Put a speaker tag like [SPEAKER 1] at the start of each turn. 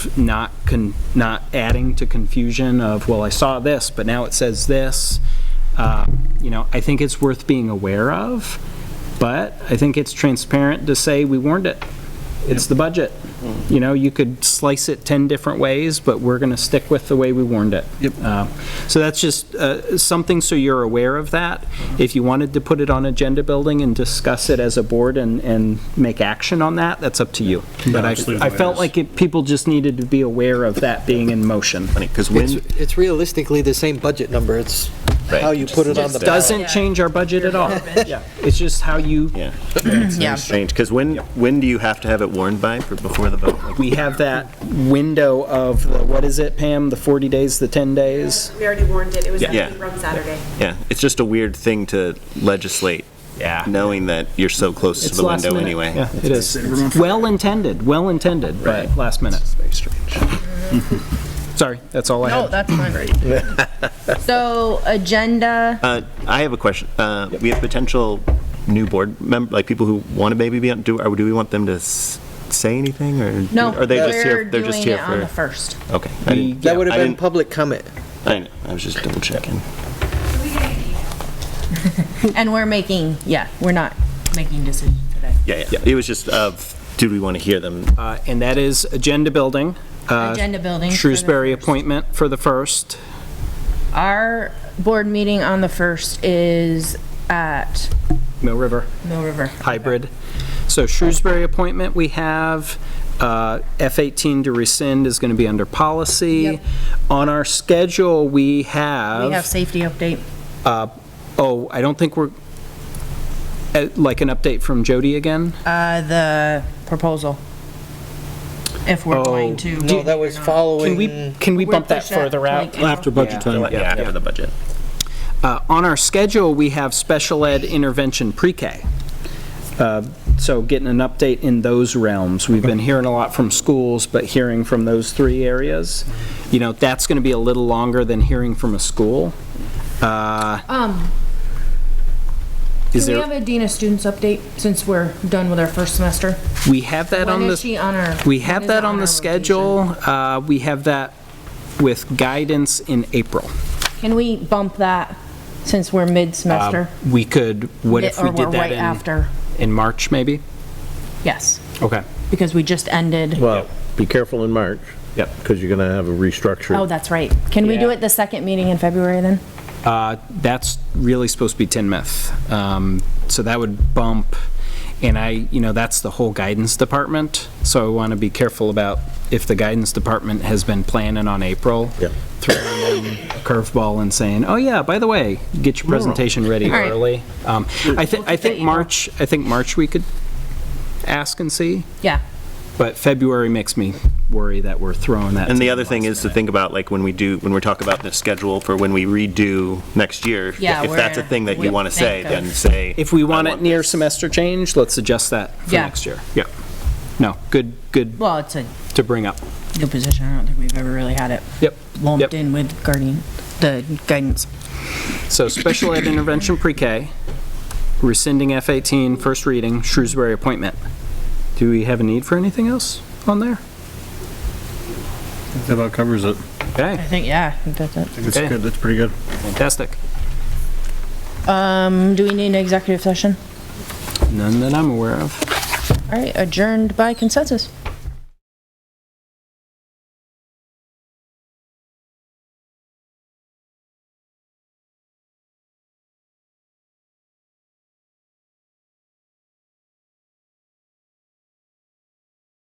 [SPEAKER 1] not con, not adding to confusion of, well, I saw this, but now it says this. Uh, You know, I think it's worth being aware of, but I think it's transparent to say, we warned it. It's the budget. You know, you could slice it 10 different ways, but we're going to stick with the way we warned it.
[SPEAKER 2] Yep.
[SPEAKER 1] Uh, So that's just uh, something so you're aware of that. If you wanted to put it on agenda building and discuss it as a board and, and make action on that, that's up to you. But I,
[SPEAKER 3] just leave it
[SPEAKER 1] I
[SPEAKER 3] the way it
[SPEAKER 1] felt
[SPEAKER 3] is.
[SPEAKER 1] like it- people just needed to be aware of that being in motion.
[SPEAKER 2] Because when,
[SPEAKER 4] It's it's realistically the same budget number, it's
[SPEAKER 2] Right.
[SPEAKER 4] how you put it on the
[SPEAKER 2] Just
[SPEAKER 4] ballot.
[SPEAKER 1] Doesn't change our budget at all. Yeah, It's just how you,
[SPEAKER 2] yeah, it's strange, because when, when do you have to have it warned by, for- before the vote? Like,
[SPEAKER 1] we have that window of, the- what is it, Pam? The 40 days, the 10 days?
[SPEAKER 5] We already warned it, it was
[SPEAKER 2] Yeah.
[SPEAKER 5] actually from Saturday.
[SPEAKER 2] Yeah, it's just a weird thing to legislate,
[SPEAKER 1] Yeah.
[SPEAKER 2] knowing that you're so close to
[SPEAKER 1] It's
[SPEAKER 2] the
[SPEAKER 1] last
[SPEAKER 2] window
[SPEAKER 1] minute.
[SPEAKER 2] anyway.
[SPEAKER 1] Yeah, it is. Well intended, well intended, but last minute.
[SPEAKER 2] It's very strange.
[SPEAKER 1] Sorry, that's all I
[SPEAKER 6] No,
[SPEAKER 1] had.
[SPEAKER 6] that's fine. So, agenda,
[SPEAKER 2] Uh, I have a question. Uh, We have potential new board member, like people who want to maybe be on, do, or do we want them to s- say anything, or?
[SPEAKER 6] no,
[SPEAKER 2] Are they just
[SPEAKER 6] we're
[SPEAKER 2] here, they're just here
[SPEAKER 6] doing it on the
[SPEAKER 2] for?
[SPEAKER 6] first.
[SPEAKER 2] Okay. I didn't-
[SPEAKER 4] That would
[SPEAKER 2] I
[SPEAKER 4] have been
[SPEAKER 2] didn't-
[SPEAKER 4] public comment.
[SPEAKER 2] I know, I was just double checking.
[SPEAKER 6] And we're making, yeah, we're not making decisions today.
[SPEAKER 2] Yeah, yeah, it was just, of, do we want to hear them?
[SPEAKER 1] Uh, And that is agenda building, uh,
[SPEAKER 6] Agenda building. for the
[SPEAKER 1] Shrewsbury
[SPEAKER 6] first.
[SPEAKER 1] appointment for the first.
[SPEAKER 6] Our board meeting on the first is at
[SPEAKER 1] Mill River
[SPEAKER 6] Mill River.
[SPEAKER 1] hybrid. So Shrewsbury appointment we have, uh, F-18 to rescind is going to be under policy.
[SPEAKER 6] Yep.
[SPEAKER 1] On our schedule, we have.
[SPEAKER 6] We have safety update.
[SPEAKER 1] Oh, I don't think we're, uh, like an update from Jody again?
[SPEAKER 6] Uh, the proposal. If
[SPEAKER 2] Oh,
[SPEAKER 6] we're going to.
[SPEAKER 4] No, that was
[SPEAKER 1] Can we,
[SPEAKER 4] following,
[SPEAKER 1] can we
[SPEAKER 6] We're
[SPEAKER 1] bump that
[SPEAKER 6] push that,
[SPEAKER 1] further out?
[SPEAKER 6] like, April. After
[SPEAKER 3] budget time.
[SPEAKER 2] Yeah, for the budget.
[SPEAKER 1] Uh, On our schedule, we have special ed intervention pre-K. Uh, So getting an update in those realms. We've been hearing a lot from schools, but hearing from those three areas, you know, that's going to be a little longer than hearing from a school. Uh,
[SPEAKER 7] Um,
[SPEAKER 1] Is
[SPEAKER 7] do we
[SPEAKER 1] there-
[SPEAKER 7] have a Dean of Students update since we're done with our first semester?
[SPEAKER 1] We have that on the...
[SPEAKER 7] When is she on our?
[SPEAKER 1] We
[SPEAKER 7] when
[SPEAKER 1] have
[SPEAKER 7] is
[SPEAKER 1] that
[SPEAKER 7] it
[SPEAKER 1] on
[SPEAKER 7] our
[SPEAKER 1] the schedule. Uh, We have that with guidance in April.
[SPEAKER 6] Can we bump that since we're mid-semester?
[SPEAKER 1] We could, what if
[SPEAKER 6] Or
[SPEAKER 1] we did
[SPEAKER 6] we're
[SPEAKER 1] that
[SPEAKER 6] right
[SPEAKER 1] in...
[SPEAKER 6] after.
[SPEAKER 1] In March, maybe?
[SPEAKER 6] Yes,
[SPEAKER 1] Okay.
[SPEAKER 6] because we just ended.
[SPEAKER 8] Well, be careful in March.
[SPEAKER 1] Yep.
[SPEAKER 8] Because you're going to have a restructure.
[SPEAKER 6] Oh, that's right. Can we do
[SPEAKER 1] Yeah.
[SPEAKER 6] it the second meeting in February then?
[SPEAKER 1] Uh, That's really supposed to be Tinmouth. Um, So that would bump, and I, you know, that's the whole guidance department. So I want to be careful about if the guidance department has been planning on April,
[SPEAKER 8] Yeah.
[SPEAKER 1] throwing them a curveball and saying, oh yeah, by the way, get your presentation ready
[SPEAKER 6] All right.
[SPEAKER 1] early. Um, I think, I think
[SPEAKER 6] April.
[SPEAKER 1] March, I think March we could ask and see,
[SPEAKER 6] Yeah.
[SPEAKER 1] but February makes me worry that we're throwing that.
[SPEAKER 2] And
[SPEAKER 1] to
[SPEAKER 2] the other thing
[SPEAKER 1] last
[SPEAKER 2] is to
[SPEAKER 1] minute.
[SPEAKER 2] think about, like, when we do, when we're talking about the schedule for when we redo next year, if
[SPEAKER 6] Yeah,
[SPEAKER 2] that's a
[SPEAKER 6] where
[SPEAKER 2] thing that
[SPEAKER 6] we
[SPEAKER 2] you want to say,
[SPEAKER 6] think
[SPEAKER 2] then
[SPEAKER 6] of-
[SPEAKER 2] say.
[SPEAKER 1] If we
[SPEAKER 2] I
[SPEAKER 1] want it near
[SPEAKER 2] this.
[SPEAKER 1] semester change, let's adjust that for
[SPEAKER 6] Yeah.
[SPEAKER 1] next year. Yeah. No, good, good
[SPEAKER 6] Well, it's a
[SPEAKER 1] to bring up.
[SPEAKER 6] new position. I don't think we've ever really had it
[SPEAKER 1] Yep. Yep.
[SPEAKER 6] lumped in with guardian, the guidance.
[SPEAKER 1] So special ed intervention pre-K, rescinding F-18, first reading, Shrewsbury appointment. Do we have a need for anything else on there?
[SPEAKER 3] That about covers it.
[SPEAKER 6] I
[SPEAKER 1] Okay,
[SPEAKER 6] think, yeah, I think that's it.
[SPEAKER 3] That's
[SPEAKER 1] Okay.
[SPEAKER 3] good, that's pretty good.
[SPEAKER 1] fantastic.
[SPEAKER 6] Um, do we need an executive session?
[SPEAKER 1] None that I'm aware of.
[SPEAKER 6] All right, adjourned by consensus.